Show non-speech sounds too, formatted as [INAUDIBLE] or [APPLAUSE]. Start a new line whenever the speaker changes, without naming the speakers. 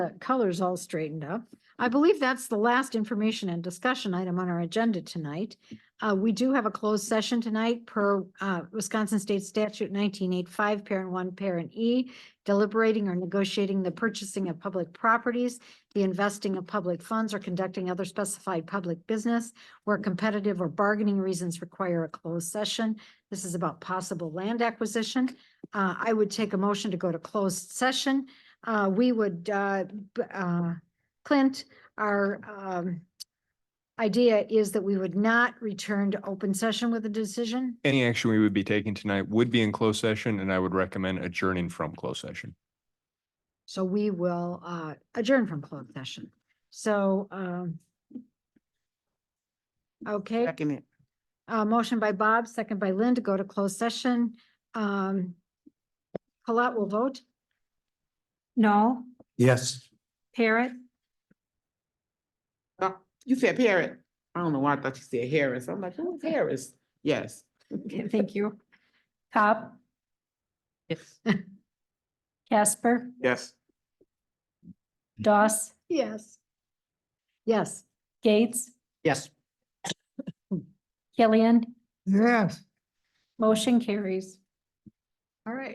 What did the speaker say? the colors all straightened up. I believe that's the last information and discussion item on our agenda tonight. Uh, we do have a closed session tonight per, uh, Wisconsin State Statute nineteen eight five, parent one, parent E, deliberating or negotiating the purchasing of public properties, the investing of public funds, or conducting other specified public business where competitive or bargaining reasons require a closed session. This is about possible land acquisition. Uh, I would take a motion to go to closed session. Uh, we would, uh, b- uh, Clint, our, um, idea is that we would not return to open session with a decision.
Any action we would be taking tonight would be in closed session, and I would recommend adjourning from closed session.
So we will, uh, adjourn from closed session. So, um, okay,
Second it.
uh, motion by Bob, second by Lynn to go to closed session. Um, Colette will vote.
No,
Yes.
Parrot,
Uh, You said Parrot. I don't know why I thought you said Harris. I'm like, who's Harris? Yes.
thank you. Cobb,
Yes.
[LAUGHS] Casper,
Yes.
Doss,
Yes. Yes.
Gates,
Yes.
Killian,
Yes.
motion carries.
All right.